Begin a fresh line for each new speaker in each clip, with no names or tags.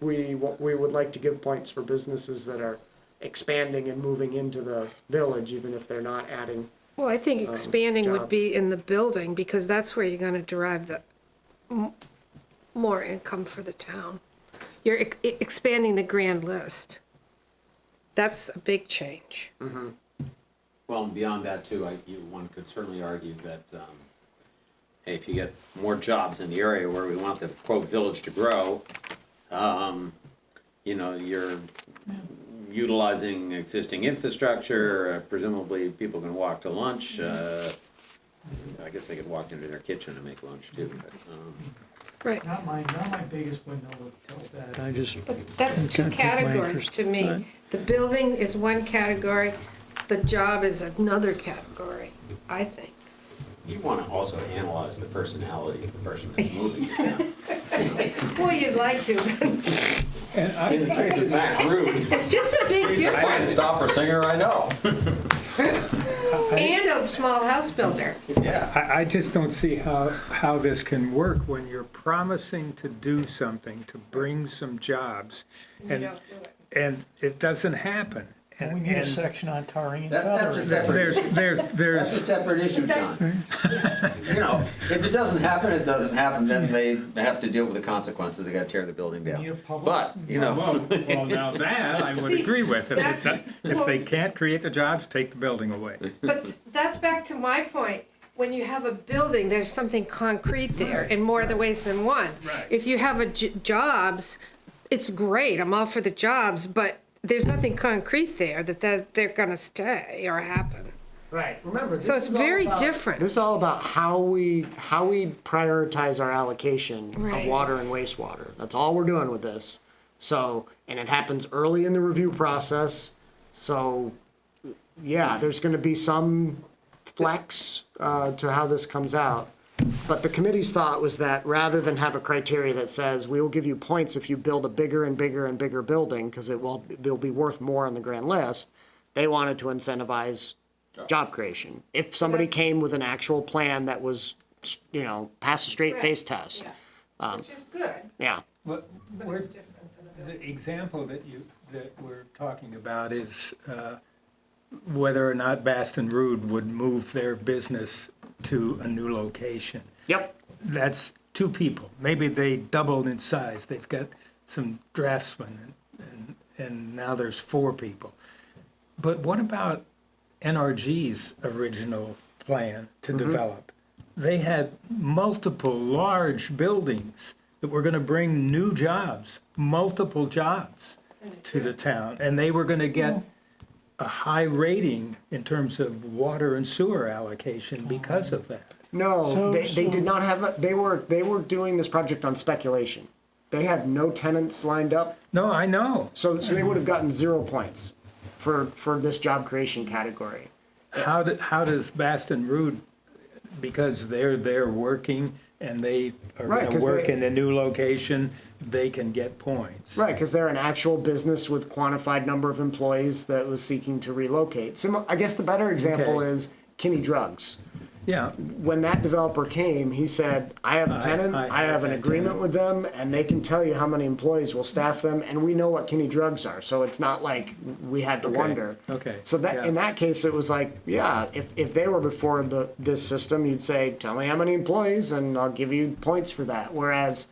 we, wa- we would like to give points for businesses that are expanding and moving into the village, even if they're not adding.
Well, I think expanding would be in the building, because that's where you're gonna derive the m- more income for the town. You're ex- e, expanding the grand list. That's a big change.
Well, and beyond that too, I, you, one could certainly argue that, um, hey, if you get more jobs in the area where we want the quote village to grow, um, you know, you're utilizing existing infrastructure, uh, presumably people can walk to lunch, uh, I guess they could walk into their kitchen and make lunch too, but, um,
Right,
Not my, not my biggest window to tell that, I just,
but that's two
Can't pick my
categories
interest,
to
right.
me. The building is one category, the job is another category, I think.
you wanna also analyze the personality of the person that's moving.
Well, you'd like to,
In the case of Matt Rude,
it's just a big
he's the
difference,
finest opera singer I know,
and a small house builder.
yeah.
I, I just don't see how, how this can work when you're promising to do something, to bring some jobs,
You
and,
don't do it.
and it doesn't happen.
we
And-
need a
and
section on tarring and
That's- that's a
feathering.
separate-
There's, there's,
That's a
there's,
separate issue, John. You know, if it doesn't happen, it doesn't happen, then they have to deal with the consequences, they gotta tear the building
Need a
down.
public-
But, you know,
well, well, now that I would agree with. If it doesn't- if they can't create the jobs, take the building away.
But that's back to my point. When you have a building, there's something concrete there in more other ways than one.
Right.
If you have a j- jobs, it's great. I'm all for the jobs, but there's nothing concrete there that that they're gonna stay or happen.
Right, remember, this
So it's
is all
very
about- This
different.
is all about how we, how we prioritize our allocation of
Right.
water and wastewater. That's all we're doing with this. So, and it happens early in the review process, so, yeah, there's gonna be some flex, uh, to how this comes out. But the committee's thought was that rather than have a criteria that says, we will give you points if you build a bigger and bigger and bigger building, cause it will, it'll be worth more on the grand list, they wanted to incentivize job creation. If somebody
that's-
came with an actual plan that was, you know, pass a straight face test,
Which is good,
yeah.
But
but it's different than a building.
The example that you, that we're talking about is uh, whether or not Baston Rood would move their business to a new location.
Yep,
That's two people. Maybe they doubled in size. They've got some draftsmen and, and, and now there's four people. But what about NRG's original plan to develop? They had multiple large buildings that were going to bring new jobs, multiple jobs to the town. And they were going to get a high rating in terms of water and sewer allocation because of that.
no,
So-
they, they
so-
did not have, a- they were, they were doing this project on speculation. They had no tenants lined up,
No, I know.
so, so they would have gotten zero points for, for this job creation category.
How, do- how does Baston Rood, because they're there working and they are
Right,
gonna
'cause
work
they-
in a new location, they can get points?
Right, because they're an actual business with quantified number of employees that was seeking to relocate. Simi- I guess the better example
Okay.
is Kinney Drugs.
Yeah,
when that developer came, he said, I have a tenant,
I
I, have
have
an
that
agreement
tenant."
with them, and they can tell you how many employees will staff them, and we know what Kenny drugs are, so it's not like we had to
Okay,
wonder.
okay,
So that in
yeah.
that case, it was like, yeah, if, if they were before the this system, you'd say, tell me how many employees, and I'll give you points for that. Whereas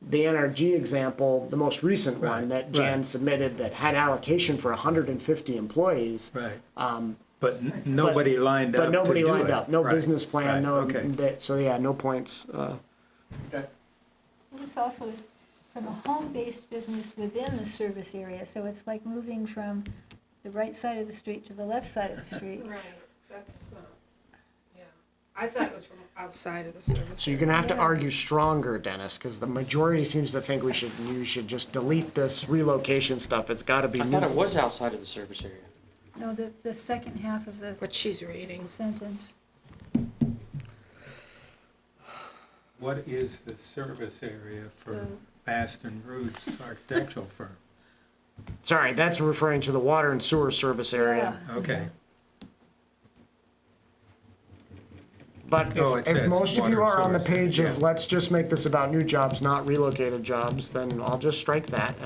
the NRG example, the most recent one
Right,
that Jan
right.
submitted that had allocation for 150 employees,
right. But n- nobody lined
Um, but
up to do it.
nobody lined up, no
Right,
business plan,
right,
no,
okay.
that- so yeah, no points. Uh,
This also is from a home-based business within the service area, so it's like moving from the right side of the street to the left side of the street.
Right, that's, uh, yeah. I thought it was from outside of the service.
So you're gonna have to argue stronger, Dennis, because the majority seems to think we should, you should just delete this relocation stuff. It's gotta be.
I thought it was outside of the service area.
No, the, the second half of the
What she's reading.
sentence.
What is the service area for Baston Rood's architectural firm?
Sorry, that's referring to the water and sewer service area.
Okay,
But
Oh, it
if, if
says
most of you
water
are
and
on the
sewer,
page of
yeah.
let's just make this about new jobs, not relocated jobs, then I'll just strike that